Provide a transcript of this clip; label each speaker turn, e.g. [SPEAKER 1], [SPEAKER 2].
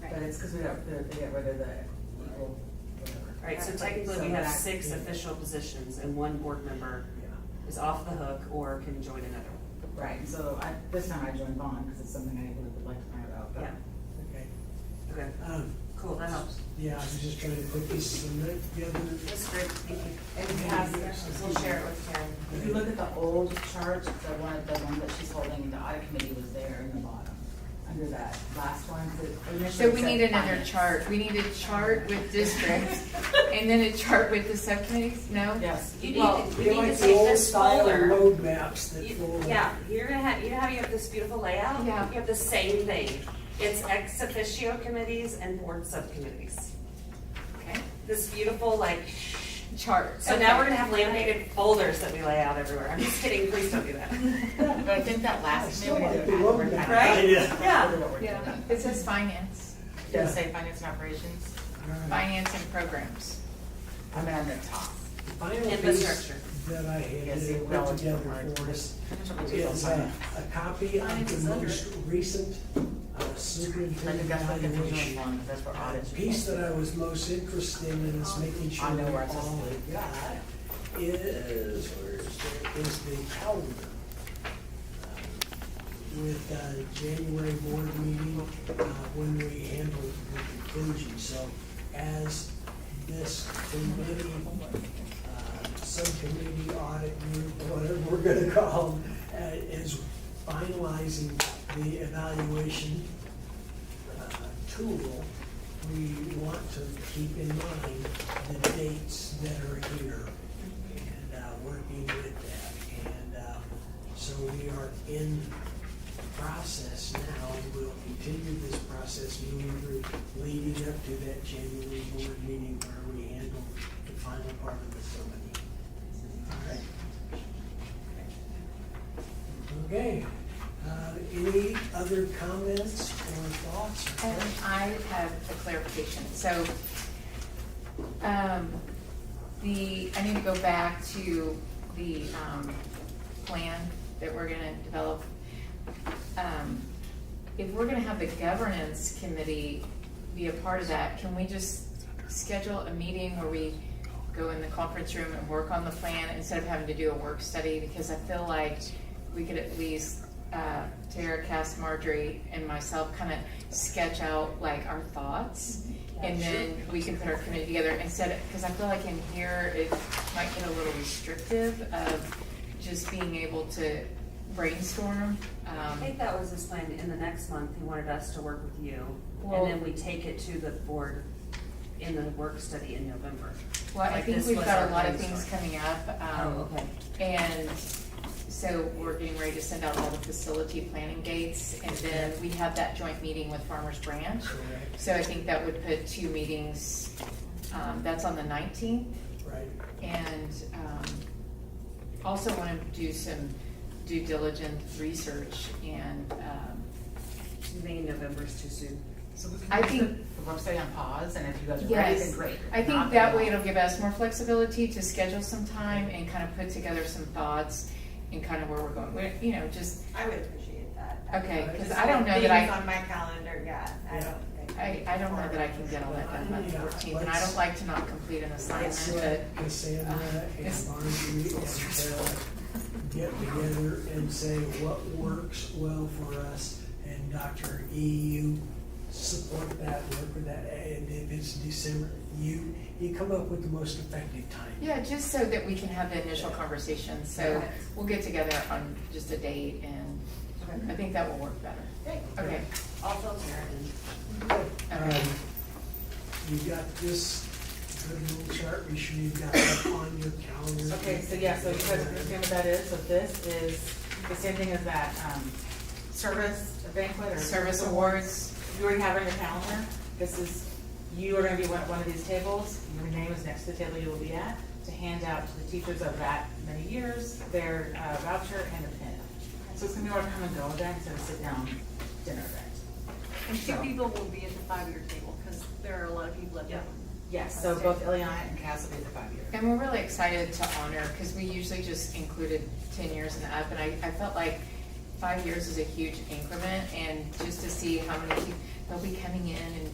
[SPEAKER 1] it's because we don't, they get rid of the, well, whatever.
[SPEAKER 2] Right, so technically we have six official positions and one board member
[SPEAKER 1] Yeah.
[SPEAKER 2] is off the hook or can join another one.
[SPEAKER 1] Right, so I, this time I joined Vaughn because it's something I would like to find out, but.
[SPEAKER 2] Yeah,
[SPEAKER 3] Okay.
[SPEAKER 2] okay,
[SPEAKER 3] Um,
[SPEAKER 2] cool, that helps.
[SPEAKER 3] yeah, I was just trying to put pieces of it together.
[SPEAKER 2] That's great, thank you.
[SPEAKER 1] And we
[SPEAKER 3] have-
[SPEAKER 1] we'll share it with Karen. If you look at the old chart, the one, the one that she's holding, the audit committee was there in the bottom, under that last one, the initially
[SPEAKER 4] So we
[SPEAKER 1] said
[SPEAKER 4] need another
[SPEAKER 1] finance.
[SPEAKER 4] chart, we need a chart with districts, and then a chart with the subcommittees, no?
[SPEAKER 1] Yes.
[SPEAKER 2] You
[SPEAKER 1] Well,
[SPEAKER 2] need to,
[SPEAKER 3] They're
[SPEAKER 2] you need
[SPEAKER 3] like
[SPEAKER 2] to
[SPEAKER 3] the
[SPEAKER 2] take
[SPEAKER 3] old
[SPEAKER 2] this
[SPEAKER 3] style
[SPEAKER 2] folder.
[SPEAKER 3] road maps that
[SPEAKER 2] You-
[SPEAKER 3] follow.
[SPEAKER 2] Yeah, you're gonna have, you know how you have this beautiful layout?
[SPEAKER 4] Yeah.
[SPEAKER 2] You have the same thing. It's ex officio committees and board subcommittees.
[SPEAKER 4] Okay.
[SPEAKER 2] This beautiful like,
[SPEAKER 4] Chart.
[SPEAKER 2] so now we're
[SPEAKER 4] okay.
[SPEAKER 2] gonna have laminated folders that we lay out everywhere. I'm just kidding, please don't do that.
[SPEAKER 1] But I think that
[SPEAKER 3] I
[SPEAKER 1] last
[SPEAKER 3] still
[SPEAKER 1] committee.
[SPEAKER 3] like the road map.
[SPEAKER 2] Right?
[SPEAKER 3] Yeah.
[SPEAKER 2] Yeah.
[SPEAKER 4] Yeah, it says finance,
[SPEAKER 1] Does it say finance and operations?
[SPEAKER 3] All right.
[SPEAKER 4] finance and programs.
[SPEAKER 1] I'm at the top.
[SPEAKER 3] The Final piece
[SPEAKER 2] Infrastructure.
[SPEAKER 3] that I had
[SPEAKER 1] Yes, it
[SPEAKER 3] put
[SPEAKER 1] will.
[SPEAKER 3] together for us is uh, a copy of the most recent uh,
[SPEAKER 1] I think
[SPEAKER 3] superintendent
[SPEAKER 1] that's what the original
[SPEAKER 3] evaluation.
[SPEAKER 1] one, that's where
[SPEAKER 3] Uh,
[SPEAKER 1] audits.
[SPEAKER 3] The piece that I was most interested in is making sure
[SPEAKER 1] I know where
[SPEAKER 3] that
[SPEAKER 1] it's
[SPEAKER 3] all
[SPEAKER 1] listed.
[SPEAKER 3] we got is, where is it, is the calendar. um, With uh, January board meeting, uh, when we handled the conclusion, so as this committee, uh, subcommittee audit group, whatever we're gonna call, them, uh, is finalizing the evaluation uh, tool, we want to keep in mind the dates that are here and uh, working with that. And uh, so we are in process now, and we'll continue this process moving through, leading up to that January board meeting where we handle the final part of the facility. All right? Okay, Uh, any other comments or thoughts?
[SPEAKER 4] Um, I have a clarification, so, um, the, I need to go back to the, um, plan that we're gonna develop. Um, if we're gonna have the governance committee be a part of that, can we just schedule a meeting where we go in the conference room and work on the plan instead of having to do a work study? Because I feel like we could at least, uh, Tara, Cass, Marjorie, and myself kind of sketch out like our thoughts. And then we can put our committee together instead, because I feel like in here, it might get a little restrictive of just being able to brainstorm.
[SPEAKER 2] I
[SPEAKER 4] um,
[SPEAKER 2] think that was his plan, in the next month, he wanted us to work with you,
[SPEAKER 4] Well-
[SPEAKER 2] and then we take it to the board in the work study in November.
[SPEAKER 4] Well, I
[SPEAKER 2] Like
[SPEAKER 4] think
[SPEAKER 2] this
[SPEAKER 4] we've
[SPEAKER 2] was
[SPEAKER 4] got
[SPEAKER 2] our
[SPEAKER 4] a lot of
[SPEAKER 2] brainstorm.
[SPEAKER 4] things coming up. um,
[SPEAKER 2] Oh, okay.
[SPEAKER 4] And so we're getting ready to send out all the facility planning dates. And then we have that joint meeting with Farmers Branch.
[SPEAKER 3] Correct,
[SPEAKER 4] So I think that would put two meetings, um, that's on the nineteenth.
[SPEAKER 3] right.
[SPEAKER 4] And um, also want to do some due diligence research and, um,
[SPEAKER 2] Do you think in November's too soon?
[SPEAKER 1] So we can
[SPEAKER 4] I
[SPEAKER 1] put
[SPEAKER 4] think-
[SPEAKER 1] The website on pause, and if you guys are ready,
[SPEAKER 4] Yes.
[SPEAKER 1] then great.
[SPEAKER 4] I
[SPEAKER 1] Not,
[SPEAKER 4] think that
[SPEAKER 1] then
[SPEAKER 4] way
[SPEAKER 1] not.
[SPEAKER 4] it'll give us more flexibility to schedule some time and kind of put together some thoughts and kind of where we're going, We're- you know, just,
[SPEAKER 5] I would appreciate that.
[SPEAKER 4] okay,
[SPEAKER 3] Right.
[SPEAKER 4] because I don't know that
[SPEAKER 5] Things
[SPEAKER 4] I,
[SPEAKER 5] on my calendar, yeah, I don't think.
[SPEAKER 4] I, I don't know that I can get all that done by the
[SPEAKER 3] Yeah,
[SPEAKER 4] fourteenth, and I
[SPEAKER 3] let's-
[SPEAKER 4] don't like to not complete an
[SPEAKER 3] Let's
[SPEAKER 4] assignment,
[SPEAKER 3] let
[SPEAKER 1] Uh,
[SPEAKER 3] Cassandra and
[SPEAKER 4] it's-
[SPEAKER 3] Marjorie and Tara get together and say what works well for us. And Dr. E, you support that, work with that, and if it's December, you, you come up with the most effective time.
[SPEAKER 4] but, yeah, just so that we can have the initial conversation, so
[SPEAKER 5] Okay.
[SPEAKER 4] we'll get together on just a date, and I think that will work better. Okay,
[SPEAKER 2] I'll fill Karen
[SPEAKER 4] Okay.
[SPEAKER 3] Um, You got this good little chart, be sure you've got that on your calendar.
[SPEAKER 1] Okay, so yeah, so you guys understand what that is, so this is the same thing as that, um, service banquet or.
[SPEAKER 4] service awards,
[SPEAKER 1] You already have it on your calendar, this is, you are gonna be one, one of these tables, your name is next to the table you will be at, to hand out to the teachers of that many years, their uh, voucher and a pin. So it's gonna be more come and go event instead of sit down dinner event.
[SPEAKER 6] And two
[SPEAKER 1] So-
[SPEAKER 6] people will be at the five-year table, because there are a lot of people at
[SPEAKER 2] Yeah.
[SPEAKER 6] that.
[SPEAKER 1] Yes, so both Ileana and Cass will be at the five year.
[SPEAKER 4] And we're really excited to honor, because we usually just included ten years and up, and I, I felt like five years is a huge increment, and just to see how many, peop- they'll be coming in and